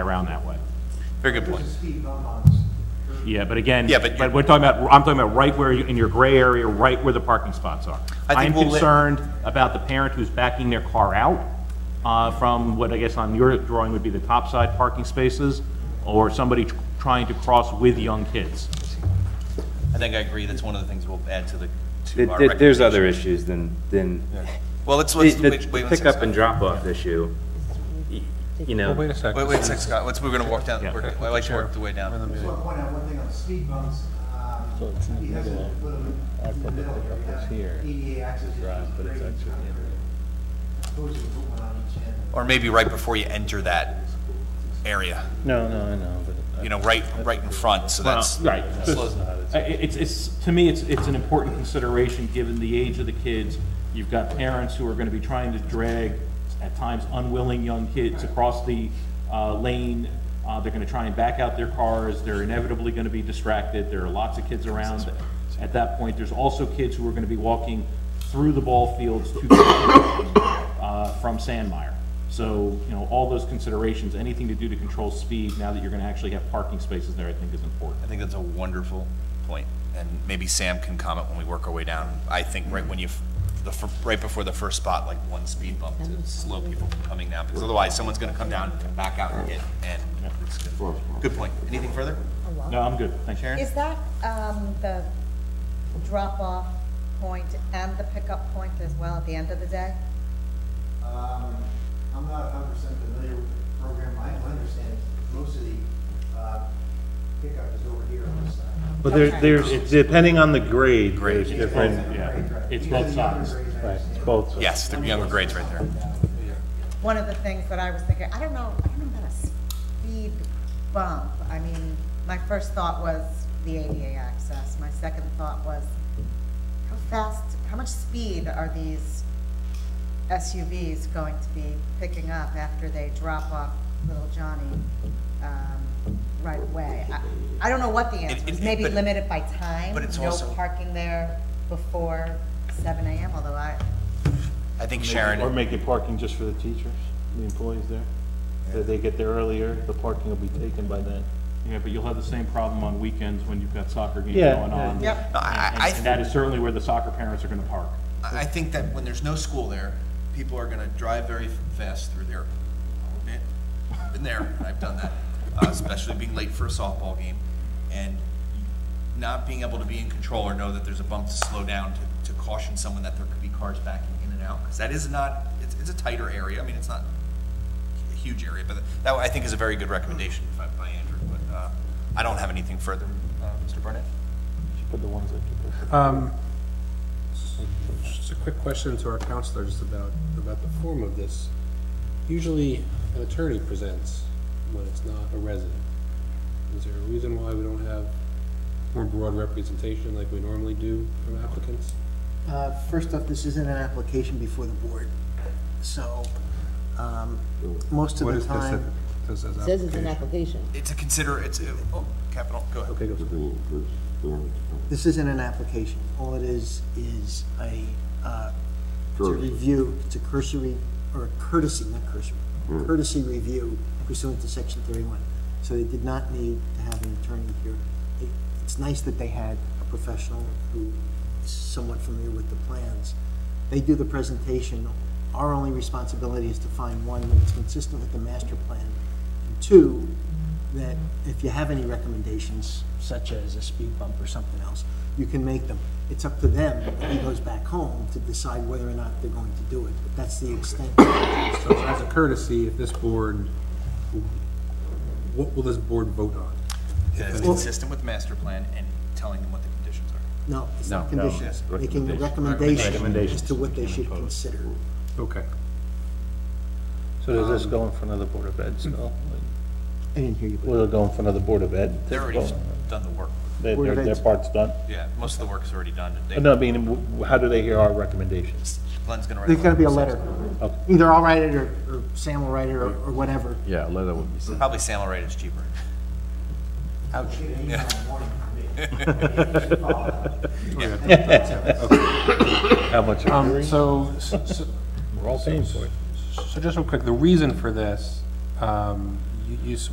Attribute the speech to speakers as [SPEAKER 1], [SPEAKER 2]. [SPEAKER 1] around that way.
[SPEAKER 2] Very good point.
[SPEAKER 1] Yeah, but again,
[SPEAKER 2] Yeah, but
[SPEAKER 1] but
[SPEAKER 2] you're-
[SPEAKER 1] we're talking about, I'm talking about right where, you- in your gray area, right where the parking spots are.
[SPEAKER 2] I
[SPEAKER 1] I'm
[SPEAKER 2] think we'll let-
[SPEAKER 1] concerned about the parent who's backing their car out uh, from what I guess on your drawing would be the top side parking spaces, or somebody tr- trying to cross with young kids.
[SPEAKER 2] I think I agree, that's one of the things we'll add to the,
[SPEAKER 3] Th-
[SPEAKER 2] to our
[SPEAKER 3] th- There's other
[SPEAKER 2] recommendation.
[SPEAKER 3] issues than, than,
[SPEAKER 2] Well, let's,
[SPEAKER 3] the
[SPEAKER 2] let's,
[SPEAKER 3] the
[SPEAKER 2] wait, wait one second.
[SPEAKER 3] pickup and drop-off issue, y- you know.
[SPEAKER 4] Wait a second.
[SPEAKER 2] Wait, wait a sec, Scott, let's, we're gonna walk down,
[SPEAKER 1] Yeah.
[SPEAKER 2] we're, I like to work the way down.
[SPEAKER 5] Just want to point out one thing on the speed bumps. um, He has a little, in the middle here, we have EDA access. But it's actually. Suppose you put one on each end.
[SPEAKER 2] Or maybe right before you enter that area,
[SPEAKER 6] No, no, I know, but.
[SPEAKER 2] you know, right, right in front, so that's.
[SPEAKER 1] Well, Right.
[SPEAKER 2] slows-
[SPEAKER 1] I- i- It's, it's, to me, it's, it's an important consideration, given the age of the kids. You've got parents who are gonna be trying to drag, at times unwilling, young kids across the uh, lane. Uh, They're gonna try and back out their cars, they're inevitably gonna be distracted, there are lots of kids around at that point. There's also kids who are gonna be walking through the ball fields to, uh, from Sandmire. So, you know, all those considerations, anything to do to control speed, now that you're gonna actually have parking spaces there, I think is important.
[SPEAKER 2] I think that's a wonderful point, and maybe Sam can comment when we work our way down. I think right when you, f- the, fir- right before the first spot, like one speed bump to slow people from coming down, because otherwise someone's gonna come down and back out and hit, and it's good. Good point. Anything further?
[SPEAKER 1] No, I'm good, thanks. Sharon?
[SPEAKER 7] Is that um, the drop-off point and the pickup point as well at the end of the day?
[SPEAKER 5] Um, I'm not hundred percent familiar with the program. I understand most of the uh, pickup is over here on this side.
[SPEAKER 6] But there, there's, depending on the grade, there's
[SPEAKER 5] Right,
[SPEAKER 6] different,
[SPEAKER 1] Yeah,
[SPEAKER 5] right.
[SPEAKER 1] it's
[SPEAKER 5] Because
[SPEAKER 1] both
[SPEAKER 5] the younger
[SPEAKER 1] sides.
[SPEAKER 5] grades, I
[SPEAKER 6] right,
[SPEAKER 5] understand.
[SPEAKER 6] both. sides.
[SPEAKER 2] Yes, the younger grades right there.
[SPEAKER 7] One of the things that I was thinking, I don't know, I don't know about a speed bump. I mean, my first thought was the ADA access. My second thought was, how fast, how much speed are these SUVs going to be picking up after they drop off little Johnny um, right away? I- I don't know what the answer
[SPEAKER 2] it-
[SPEAKER 7] is.
[SPEAKER 2] it-
[SPEAKER 7] Maybe
[SPEAKER 2] but-
[SPEAKER 7] limit it by time?
[SPEAKER 2] but it's
[SPEAKER 7] No
[SPEAKER 2] also-
[SPEAKER 7] parking there before seven AM, although I,
[SPEAKER 2] I think Sharon.
[SPEAKER 4] Or make it parking just for the teachers, the employees there. That they get there earlier, the parking will be taken by then.
[SPEAKER 1] Yeah, but you'll have the same problem on weekends when you've got soccer games
[SPEAKER 6] Yeah,
[SPEAKER 1] going on.
[SPEAKER 6] yeah.
[SPEAKER 2] No, I,
[SPEAKER 1] And
[SPEAKER 2] I,
[SPEAKER 1] and that is certainly where the soccer parents are gonna park.
[SPEAKER 2] I think that when there's no school there, people are gonna drive very fast through there. I've Been there, and I've done that, uh, especially being late for a softball game, and not being able to be in control or know that there's a bump to slow down to, to caution someone that there could be cars backing in and out, because that is not, it's, it's a tighter area, I mean, it's not a huge area, but that, I think is a very good recommendation by, by Andrew, but, uh, I don't have anything further, uh, Mr. Barnett?
[SPEAKER 4] Put the ones that.
[SPEAKER 8] Um, Just a quick question to our counselors about, about the form of this. Usually, an attorney presents when it's not a resident. Is there a reason why we don't have more broad representation like we normally do from applicants?
[SPEAKER 5] Uh, First off, this isn't an application before the board, so um, most of
[SPEAKER 8] What
[SPEAKER 5] the
[SPEAKER 8] is this
[SPEAKER 5] time.
[SPEAKER 8] that- This as
[SPEAKER 9] Says it's an
[SPEAKER 8] application?
[SPEAKER 9] application.
[SPEAKER 2] It's a consider, it's, a- oh, capital, go ahead.
[SPEAKER 8] Okay, go.
[SPEAKER 5] This isn't an application. All it is, is a, uh, it's a review, it's a cursory, or a courtesy, not cursory, courtesy review pursuant to section thirty-one. So they did not need to have an attorney here. It- It's nice that they had a professional who is somewhat familiar with the plans. They do the presentation. Our only responsibility is to find one that's consistent with the master plan. And two, that if you have any recommendations, such as a speed bump or something else, you can make them. It's up to them, when he goes back home, to decide whether or not they're going to do it. But that's the extent.
[SPEAKER 8] So as a courtesy, if this board, what will this board vote on?
[SPEAKER 2] That is consistent with master plan and telling them what the conditions are.
[SPEAKER 5] No, it's not
[SPEAKER 3] No, no,
[SPEAKER 5] conditions. Making the
[SPEAKER 3] Recommendations.
[SPEAKER 5] recommendation as to what they should consider.
[SPEAKER 8] Okay.
[SPEAKER 6] So does
[SPEAKER 2] Um,
[SPEAKER 6] this go in front of the Board of
[SPEAKER 2] hmm.
[SPEAKER 6] Ed still?
[SPEAKER 5] I didn't hear you. but-
[SPEAKER 6] Will it go in front of the Board of Ed?
[SPEAKER 2] They're already s- done the work.
[SPEAKER 6] Their,
[SPEAKER 5] Board
[SPEAKER 6] their
[SPEAKER 5] of
[SPEAKER 6] their
[SPEAKER 5] Ed's-
[SPEAKER 6] part's done?
[SPEAKER 2] Yeah, most of the work is already done. and they-
[SPEAKER 6] No, I mean, w- w- how do they hear our recommendations?
[SPEAKER 2] Glenn's gonna write.
[SPEAKER 5] There's gonna be a letter.
[SPEAKER 6] Okay.
[SPEAKER 5] Either I'll write it, or or Sam will write it, or or whatever.
[SPEAKER 3] Yeah, leather would be.
[SPEAKER 2] Probably Sam will write it, it's cheaper.
[SPEAKER 5] Ouch.
[SPEAKER 6] How much? are we-
[SPEAKER 8] Um, so, so,
[SPEAKER 6] We're all paying for it.
[SPEAKER 8] so just real quick, the reason for this, um, you, you s-